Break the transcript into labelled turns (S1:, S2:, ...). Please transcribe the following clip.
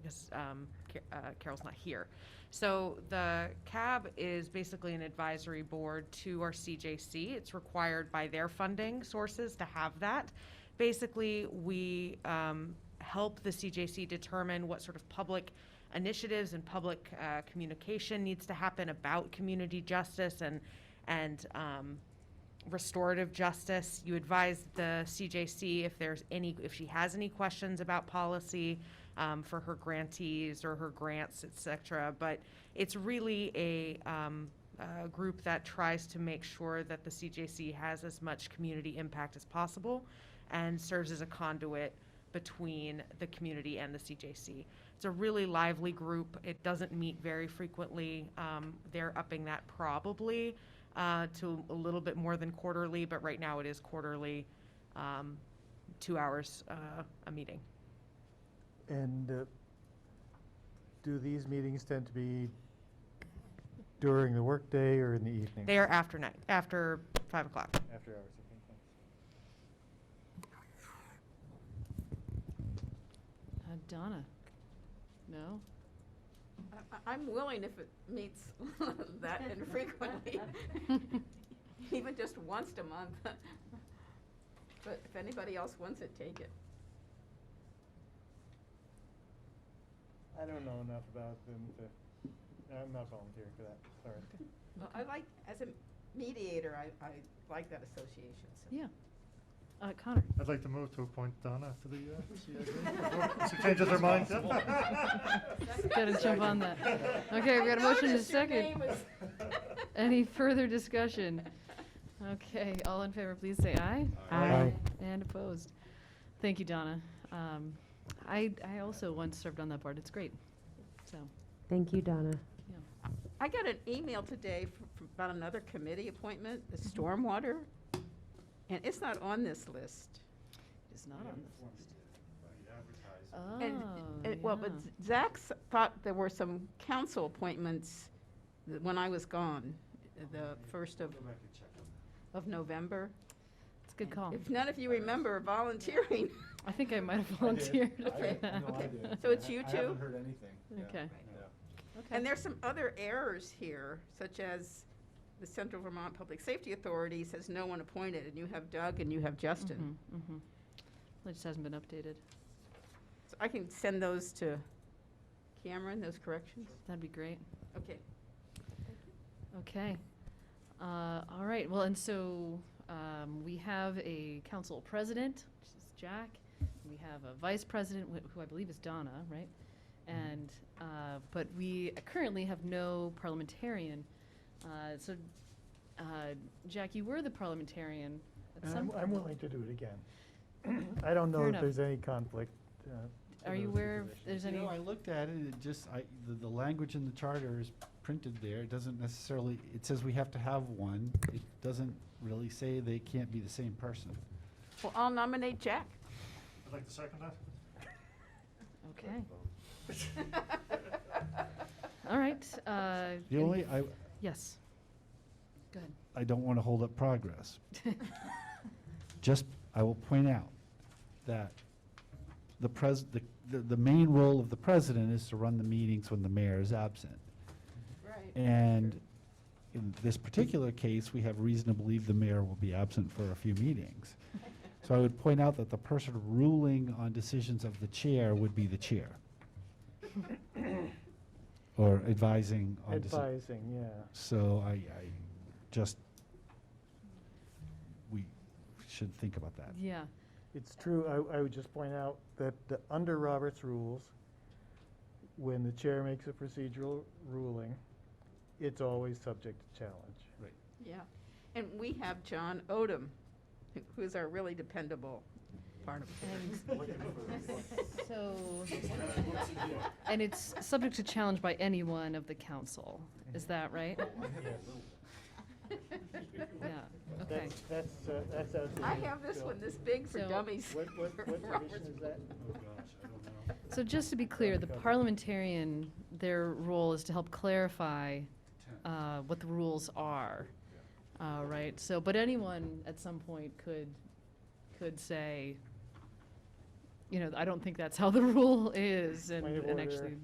S1: because um, Ca- uh, Carol's not here. So the CAB is basically an advisory board to our CJC. It's required by their funding sources to have that. Basically, we um, help the CJC determine what sort of public initiatives and public uh, communication needs to happen about community justice and, and um, restorative justice. You advise the CJC if there's any, if she has any questions about policy um, for her grantees or her grants, et cetera. But it's really a, um, a group that tries to make sure that the CJC has as much community impact as possible and serves as a conduit between the community and the CJC. It's a really lively group. It doesn't meet very frequently. Um, they're upping that probably uh, to a little bit more than quarterly, but right now it is quarterly, um, two hours uh, a meeting.
S2: And uh, do these meetings tend to be during the workday or in the evening?
S1: They are after night, after five o'clock.
S2: After hours, I think. that's-
S3: Uh, Donna? No?
S4: I- I- I'm willing if it meets that infrequently, even just once a month. But if anybody else wants it, take it.
S2: I don't know enough about them to, I'm not volunteering for that, sorry.
S4: Well, I like, as a mediator, I, I like that association, so.
S3: Yeah. Uh, Connor?
S5: I'd like to move to appoint Donna to the uh, CIO before she changes her mind.
S3: Gotta jump on that. Okay, we got a motion and a
S4: noticed your
S3: second.
S4: name was-
S3: Any further discussion? Okay, all in favor, please say aye.
S2: Aye. Aye.
S3: And opposed. Thank you, Donna. Um, I, I also once served on that board. It's great. So,
S6: Thank you, Donna.
S3: yeah.
S4: I got an email today fr- fr- about another committee appointment, the stormwater, and it's not on this list.
S3: It's not on this list.
S4: And-
S3: Oh,
S4: and- Well, but
S3: yeah.
S4: Zach thought there were some council appointments th- when I was gone, the first of, of November.
S3: It's a good call.
S4: If none of you remember volunteering,
S3: I think I might have volunteered
S5: I
S3: for
S5: did.
S3: that.
S5: No, I did.
S4: So it's you
S5: I haven't
S4: two?
S5: heard anything. Yeah.
S3: Okay.
S5: Yeah.
S4: and there's some other errors here, such as the Central Vermont Public Safety Authority says no one appointed, and you have Doug and you have Justin.
S3: Mm-hmm. It just hasn't been updated.
S4: So I can send those to Cameron, those corrections?
S3: That'd be great.
S4: Okay.
S3: Okay. Uh, All right, well, and so um, we have a council president, which is Jack. We have a vice president, wh- who I believe is Donna, right?
S5: Mm-hmm.
S3: And, uh, but we currently have no parliamentarian. Uh, So, uh, Jack, you were the parliamentarian at
S2: And
S3: some
S2: I'm, I'm
S3: point.
S2: willing to do it again. I don't know
S3: Fair
S2: if
S3: enough.
S2: there's any conflict. uh, to
S3: Are you
S2: those two
S3: aware if
S2: positions.
S3: there's
S5: You
S3: any?
S5: know, I looked at it, it just, I, the, the language in the charter is printed there, it doesn't necessarily, it says we have to have one. It doesn't really say they can't be the same person.
S4: Well, I'll nominate Jack.
S5: I'd like to second that.
S3: Okay. All right. uh,
S5: The
S3: any-
S5: only, I,
S3: Yes. Go ahead.
S5: I don't want to hold up progress. Just, I will point out that the pres, the, the, the main role of the president is to run the meetings when the mayor is absent.
S4: Right.
S5: And in this particular case, we have reason to believe the mayor will be absent for a few meetings. So I would point out that the person ruling on decisions of the chair would be the chair. Or advising on decisions.
S2: Advising, yeah.
S5: So I, I just, we should think about that.
S3: Yeah.
S2: It's true, I, I would just point out that the- under Robert's rules, when the chair makes a procedural ruling, it's always subject to challenge.
S4: Yeah. And we have John Odom, who- who's our really dependable part of
S3: So, and it's subject to challenge by anyone of the council, is that right? Yeah, okay.
S2: That's, that's, uh, that's out there.
S4: I have this one this big for
S3: So-
S4: dummies.
S2: What, what, what
S4: Robert's
S2: provision is that?
S3: So just to be clear, the parliamentarian, their role is to help clarify uh, what the rules are, Uh, right? So, but anyone at some point could, could say,
S2: you know, I don't think that's how the rule is, and
S3: Point of
S2: and
S3: order.
S2: actually